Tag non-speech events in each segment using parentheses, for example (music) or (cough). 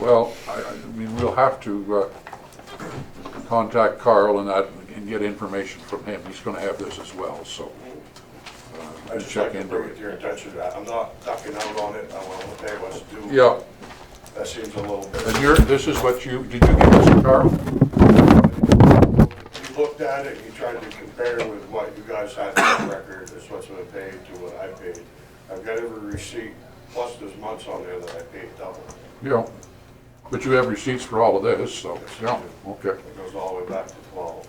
Well, I, I mean, we'll have to, uh, contact Carl and that, and get information from him, he's gonna have this as well, so. uh, I to just check check to into bring it it. to your attention, I- I'm not ducking out on it, I want to pay what's due. Yeah, That seems a little bit, and you're, this is what you, did you give this to Carl? you looked at it, you tried to compare it with what you guys had on record, as what's been paid to what I paid. I've got every receipt, plus there's months on there that I paid double. Yeah, but you have receipts for all of this, so, yeah, okay. It goes all the way back to twelve.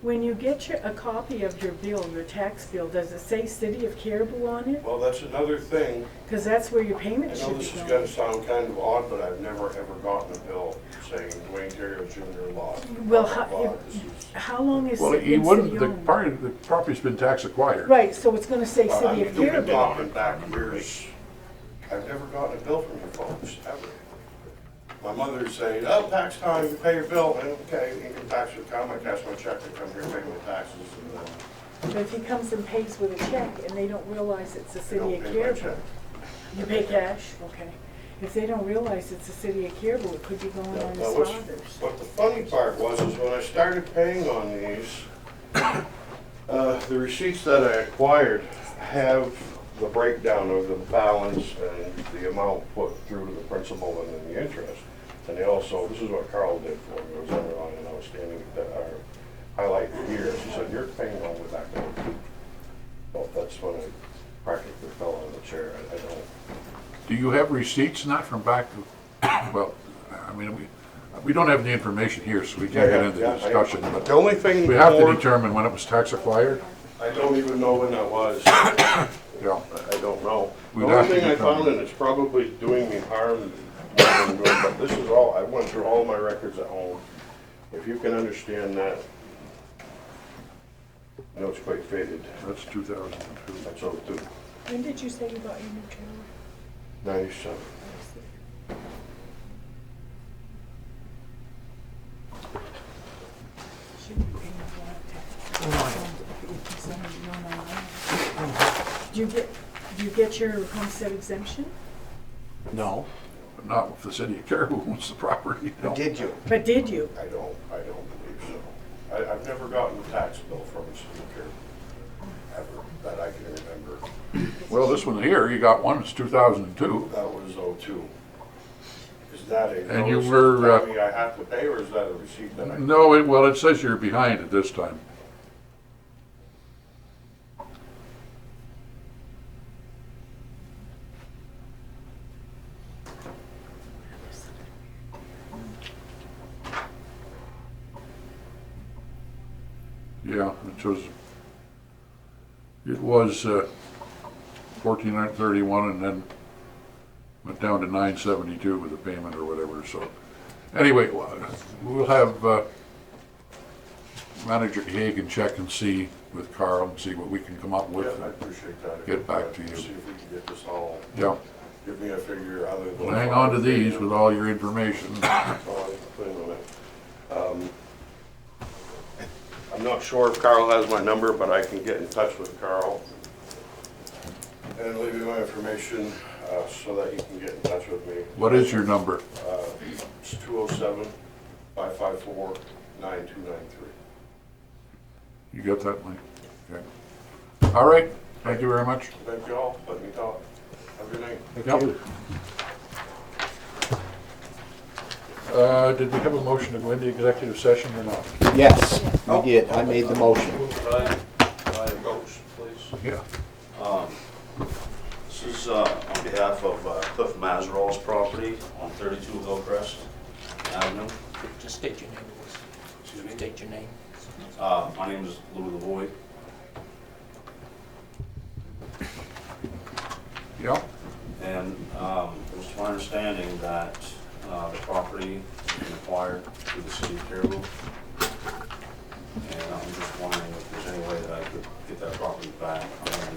When you get your, a copy of your bill, your tax bill, does it say City of Caribou on it? Well, that's another thing, Because that's where your I payment know should be this is gonna going. sound kind of odd, but I've never ever gotten a bill saying Dwayne Terrio Junior lot. Well, lot, how, lot, this is- how long is Well, it he been wouldn't, city the owned? property, the property's been tax acquired. Right, so it's gonna say Well, I City mean, of we've been Caribou. on talking it. back years. I've never gotten a bill from you folks, ever. My mother's saying, oh, tax time, you pay your bill, and okay, income tax will come, I cash my check, I come here, pay my taxes, and uh, then But if he comes and pays with a check and they don't realize it's the they City don't of pay my Caribou. check. You pay cash, okay. If they don't realize it's the City of Caribou, it could be going Now, on now, his what's- father's. What the funny part was, is when I started paying on these, uh, the receipts that I acquired have the breakdown of the balance and the amount put through to the principal and then the interest. And they also, this is what Carl did for me, was underlying and outstanding, that I highlight the years, he said, you're paying on the back end. Well, that's when I practically fell on the chair, I I don't, Do you have receipts, not from back, (coughs) well, I mean, we, we don't have the information here, so we can't get into the Yeah, yeah, I- discussion, The but only thing. we have to more- determine when it was tax acquired, I don't even know when that was. yeah. I I don't know. The We'd only have to thing I determine. found, and it's probably doing me harm, more than good, but this is all, I went through all my records at home. If you can understand that, I know it's quite faded, That's two thousand and two. that's 02, When did you say you bought your new trailer? 97. Should be paying a lot of taxes. Some of you don't know. Do you get, do you get your homestead exemption? No. But not if the city of Caribou owns the property, no. Did you? But did you? I don't, I don't believe so. I, I've never gotten a tax bill from a city ever, that I can remember. Well, this one here, you got one, it's two thousand and two. That was 02. Is that a And you notice were, uh, telling me I have to pay, or is that a receipt that I? No, it, well, it says you're behind at this time. Yeah, it was, it was uh, fourteen hundred thirty-one and then went down to nine seventy-two with the payment or whatever, so. Anyway, well, we'll have uh, Manager Hagan check and see with Carl and see what we can come up Yeah, with. I appreciate that. Get back to you. See if we can get this all, Yeah, give me a figure other than. well, hang on to these with all your information. That's all I can put in on it. Um, I'm not sure if Carl has my number, but I can get in touch with Carl and leave you my information uh, so that he can get in touch with me. What is your number? It's 207-554-9293. You got that, Mike? Okay. All right, thank you very much. Thank you all, let me talk. Have a good night. Yep. Uh, Did we have a motion to go into executive session or not? Yes, you did. I made the motion. Ryan, Ryan Roach, please. Yeah. This is uh, on behalf of uh, Cliff Mazeral's property on 32 Hillcrest Avenue. Just state your name, please. Excuse me. State your name. Uh, My name is Louis Lavoy. Yeah, And um, it was my understanding that uh, the property has been acquired through the city of Caribou. And I'm just wondering if there's any way that I could get that property back. I'm gonna